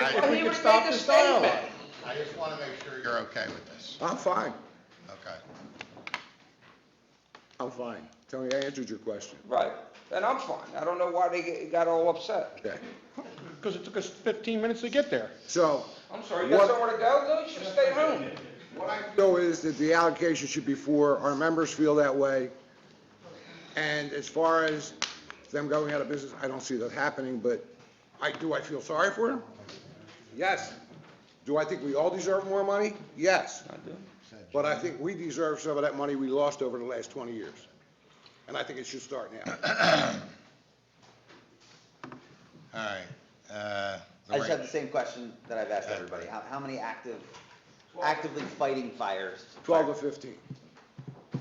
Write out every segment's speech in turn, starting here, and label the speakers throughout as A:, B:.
A: would
B: would
A: stop
B: make a
A: this dialogue.
B: statement.
C: I just want to make sure you're okay with this.
A: I'm fine,
C: Okay.
A: I'm fine. Tony, I answered your question.
B: Right, and I'm fine, I don't know why they get- got all upset.
A: Okay,
D: because it took us 15 minutes to get there.
A: so,
B: I'm sorry, you got
A: What-
B: somewhere to go, though, you should stay home.
C: What I,
A: so is that the allocation should be four, our members feel that way. And as far as them going out of business, I don't see that happening, but I, do I feel sorry for them? Yes. Do I think we all deserve more money? Yes.
B: I do.
A: But I think we deserve some of that money we lost over the last 20 years. And I think it should start now.
C: all right,
E: I just
C: uh,
E: have the
C: Lorraine,
E: same question that I've asked everybody. How, how many active, actively fighting fires?
A: 12 to 15.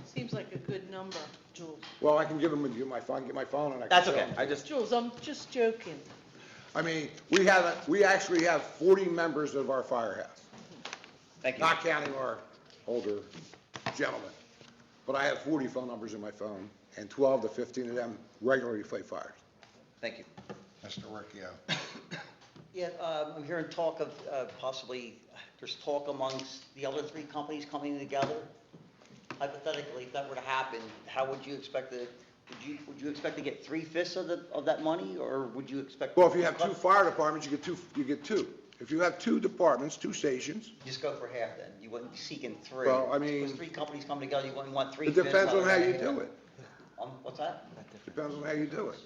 F: Seems like a good number, Jules.
A: Well, I can give them, give my phone, get my phone and I can
E: That's
A: show
E: okay,
A: 'em.
E: I just,
F: Jules, I'm just joking.
A: I mean, we have, a- we actually have 40 members of our firehouse,
E: thank you.
A: not counting our older gentlemen. But I have 40 phone numbers in my phone, and 12 to 15 of them regularly fight fires.
E: Thank you.
C: Mr. Ricchio.
G: Yeah, um, I'm hearing talk of uh, possibly, there's talk amongst the other three companies coming together. Hypothetically, if that were to happen, how would you expect to, would you, would you expect to get three fifths of the, of that money, or would you expect?
A: Well, if you have two fire departments, you get two, you get two. If you have two departments, two stations,
G: Just go for half then, you wouldn't be seeking three.
A: Well, I
G: If it was
A: mean-
G: three companies coming together, you wouldn't want three
A: it
G: fifths.
A: depends on how you
G: of
A: do it.
G: Um, what's that?
A: Depends on how you do it.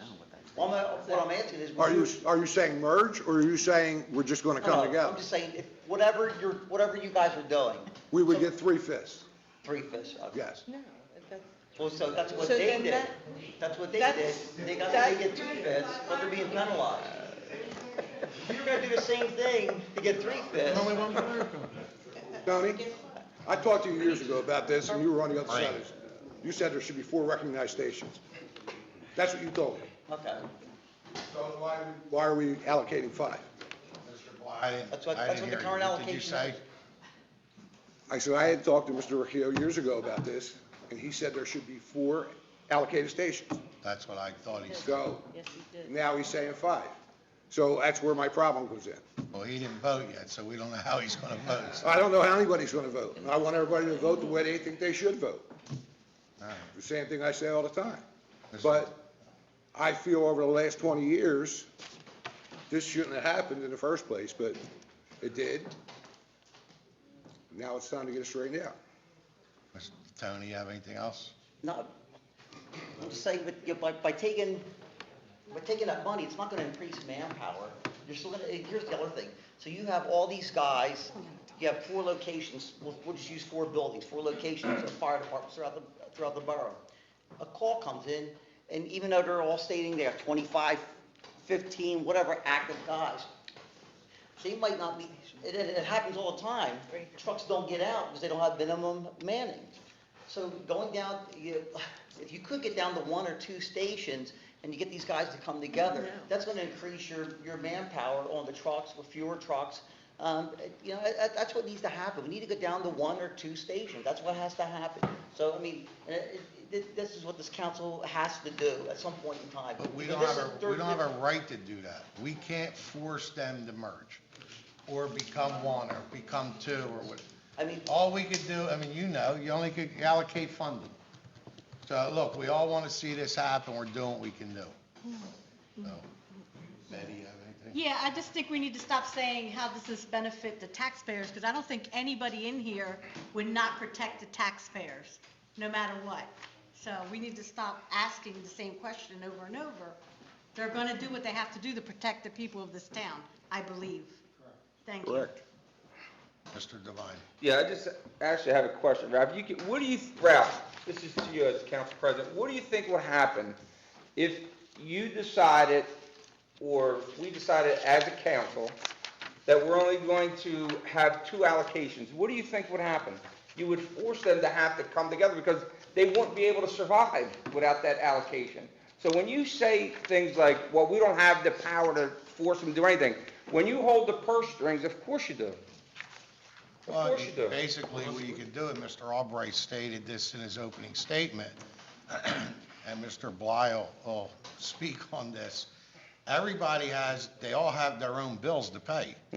G: Well, I'm- what I'm asking is. would
A: Are you, are you saying merge, or are you saying we're just gonna
G: No, no,
A: come together?
G: I'm just saying, if, whatever you're, whatever you guys are doing,
A: We would get three fifths,
G: three fifths of it.
A: yes.
F: No, that's,
G: Well, so that's what
F: So
G: they
F: then
G: did.
F: that-
G: That's what they did.
F: that's-
G: They got,
F: that-
G: they get two fifths, but they're being penalized. If you're gonna do the same thing to get three fifths,
A: Tony, I talked to you years ago about this, and you were on the other side of this. You said there should be four recognized stations. That's what you told me.
G: okay.
A: So why? Why are we allocating five?
C: Mr. Bly, I didn't,
G: That's what-
C: I didn't
G: that's what the
C: hear you.
G: current
C: What did you
G: allocation
C: say?
G: is.
A: I said, I had talked to Mr. Ricchio years ago about this, and he said there should be four allocated stations.
C: That's what I thought he said.
A: So
F: yes, you did.
A: now he's saying five. So that's where my problem comes in.
C: Well, he didn't vote yet, so we don't know how he's gonna vote. so-
A: I don't know how anybody's gonna vote, and I want everybody to vote the way they think they should vote.
C: All right.
A: The same thing I say all the time.
C: Mr.
A: But I feel over the last 20 years, this shouldn't have happened in the first place, but it did. Now it's time to get it straightened out.
C: Mr. Tony, you have anything else?
G: No, I'm just saying, but, you know, by, by taking, by taking that money, it's not gonna increase manpower. You're still gonna, and here's the other thing. So you have all these guys, you have four locations, we'll, we'll just use four buildings, four locations of fire departments throughout the, throughout the borough. A call comes in, and even though they're all stating they have 25, 15, whatever active guys, they might not be, it, it it happens all the time. Trucks don't get out because they don't have minimum manning. So going down, you, if you could get down to one or two stations and you get these guys to come together, that's gonna increase your, your manpower on the trucks, with fewer trucks. Um, it- you know, that, that's what needs to happen. We need to get down to one or two stations. That's what has to happen. So, I mean, uh, it- it- this is what this council has to do at some point in time.
C: But we
G: Because
C: don't
G: this
C: have
G: is
C: a,
G: third-
C: we don't have a right to do that. We can't force them to merge, or become one, or become two, or what.
G: I mean,
C: All we could do, I mean, you know, you only could allocate funding. So, look, we all want to see this happen, we're doing what we can do. So, Betty, you have anything?
H: Yeah, I just think we need to stop saying how does this benefit the taxpayers, because I don't think anybody in here would not protect the taxpayers, no matter what. So we need to stop asking the same question over and over. They're going to do what they have to do to protect the people of this town, I believe. Thank you.
A: Correct.
C: Mr. Devine?
B: Yeah, I just actually have a question, Ralph. You can, what do you, Ralph, this is to you as council president, what do you think will happen if you decided, or we decided as a council, that we're only going to have two allocations? What do you think would happen? You would force them to have to come together because they wouldn't be able to survive without that allocation. So when you say things like, well, we don't have the power to force them to do anything, when you hold the purse strings, of course you do. Of
C: Well,
B: course you do.
C: Basically, what you could do, and Mr. Albright stated this in his opening statement, and Mr. Bly will- will speak on this, everybody has, they all have their own bills to pay.